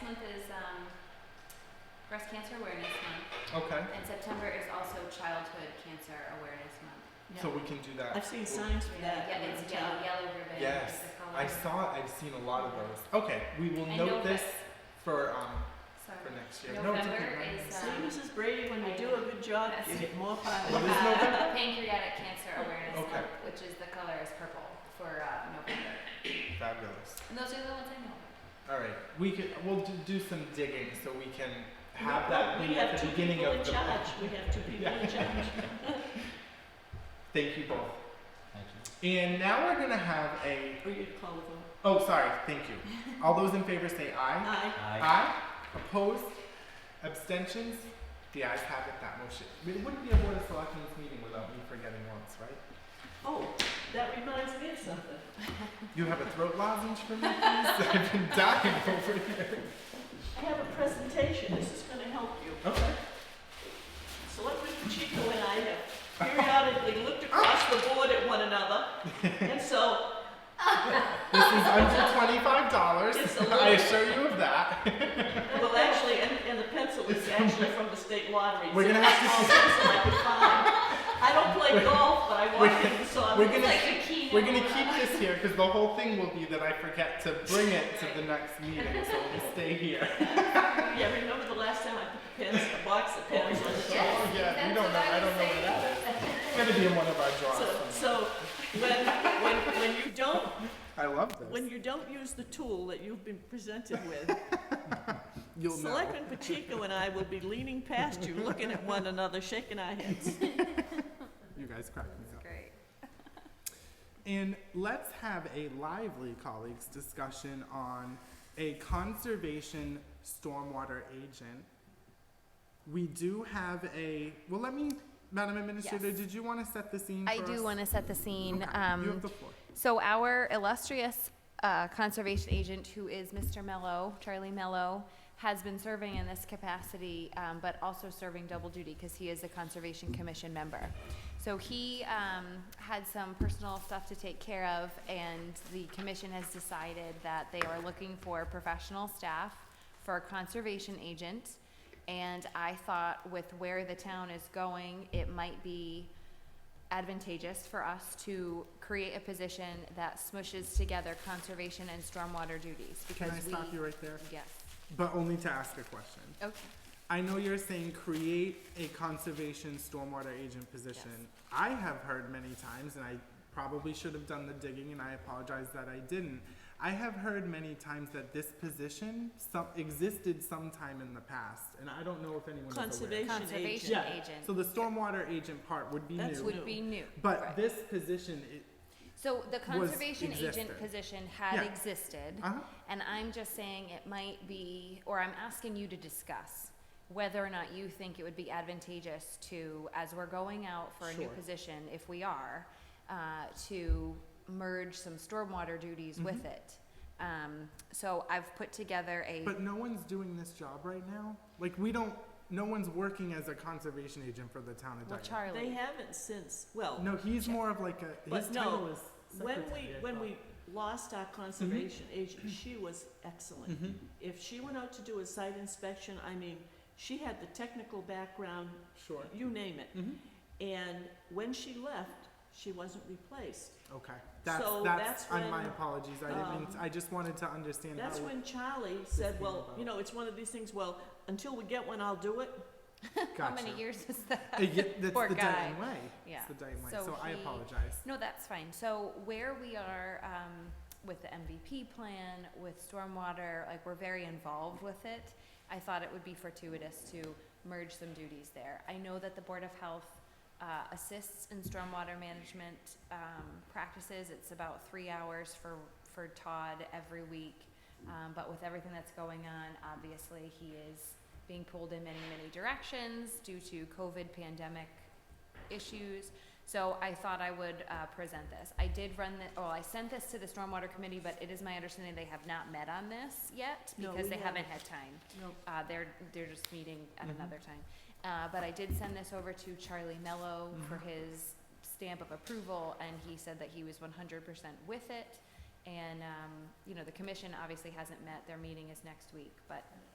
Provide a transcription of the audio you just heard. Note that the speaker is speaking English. um, Breast Cancer Awareness Month, Okay, and September is also Childhood Cancer Awareness Month. so we can do that. I've seen signs for that. Yeah, on it's the yellow, top. yellow ribbon. is Yes, the color. I saw. I've seen a lot of those. Okay, we will And note November- this for um for Sorry. next year. no, it's November okay. Ryan. is, See, um, Mrs. Brady, when you do a good job, you get more It power. is November. uh, Pancreatic Cancer Awareness Okay. Month, which is the color is purple for uh, November. Fabulous. And those are the ones I know. All right, we can. We'll do, do some digging so we can have No, that We be at have the two beginning people of in the. charge, we have two people in charge. Thank you both. Thank you. And now we're gonna have a. Or you'd call the vote. Oh, sorry. Thank you. All those in favor say aye. Aye. Aye. Aye. Opposed? Abstentions? The ayes have it, that motion. It wouldn't be a Board of Selectmen's meeting without me forgetting once, right? Oh, that reminds me of something. You have a throat lozenge for me, please? I've been dying over here. I have a presentation, this is gonna help you. Okay. Selectman Pacheco and I have periodically looked across the board at one another, and so This is under twenty-five dollars. It's a I lot. assure you of that. Well, actually, and, and the pencil is actually from the state lottery. We're gonna It's the have to- smallest pencil I could find. I don't play golf, but I walked in and saw. We're it. gonna, Like the key. we're gonna keep this here because the whole thing will be that I forget to bring it to the next meeting, so we'll stay here. Yeah, remember the last time I put the pins, a box of pins on the Yes, Oh, yeah, we that's don't know, what I I don't was know where that is. It's gonna be in one of our So, drawers. somewhere. so when, when, when you don't, I love when this. you don't use the tool that you've been presented with, You'll know. Selectman Pacheco and I will be leaning past you, looking at one another, shaking our heads. You guys crack me up. Great. And let's have a lively colleagues discussion on a conservation stormwater agent. We do have a, well, let me, Madam Administrator, Yes. did you want to set the scene I for do us? want to set the scene. Okay, Um, you have the floor. So our illustrious uh, conservation agent, who is Mr. Mello, Charlie Mello, has been serving in this capacity, um, but also serving double duty because he is a Conservation Commission member. So he um, had some personal stuff to take care of, and the commission has decided that they are looking for professional staff for a conservation agent. And I thought with where the town is going, it might be advantageous for us to create a position that smushes together conservation and stormwater duties because Can I we. stop you right there? Yes, But only to ask a question. okay, I know you're saying create a conservation stormwater agent position. I have heard many times, and I probably should have done the digging, and I apologize that I didn't. I have heard many times that this position some, existed sometime in the past, and I don't know if anyone is aware. Conservation agent. conservation So agent the stormwater agent part would be That's new, what- would be new. but Right. this position, it, So the conservation agent existed. position had Yeah. existed, uh and I'm just saying it might be, or I'm asking you to discuss whether or not you think it would be advantageous to, as we're going out for a new Sure. position, if we are, uh, to merge some stormwater duties Mm-hmm. with it. Um, so I've put together a, But no one's doing this job right now. Like we don't. No one's working as a conservation agent for the town of well, Dayton. They Charlie, haven't since, well. No, he's more of like a, his But no, title is When secretary. Mm-hmm. we, when we lost our conservation agent, she was excellent. hmm If she went out to do a site inspection, I mean, she had the technical background, Sure. you name it. hmm And when she left, she wasn't replaced. Okay. That's, So that's, that's I'm my when, apologies. I didn't mean, um, to- I just wanted to understand That's how, when Charlie said, came well, you about. know, it's one of these things, well, until we get one, I'll do it. how gotcha. many years is that? Uh, yeah, that's Poor the guy. Dayton way. Yeah. It's the Dayton way. So So I he- apologize. No, that's fine. So where we are um, with the MVP plan, with stormwater, like we're very involved with it. I thought it would be fortuitous to merge some duties there. I know that the Board of Health uh, assists in stormwater management um, practices. It's about three hours for, for Todd every week. Um, But with everything that's going on, obviously, he is being pulled in many, many directions due to COVID pandemic issues. So I thought I would uh, present this. I did run the, oh, I sent this to the Stormwater Committee, but it is my understanding they have not met on this yet No, because we they haven't had time. No. Uh, They're, they're just meeting at Mhm. another time. Uh, But I did send this over to Charlie Mello for Mhm. his stamp of approval, and he said that he was one hundred percent with it. And, um, you know, the commission obviously hasn't met, their meeting is next week, but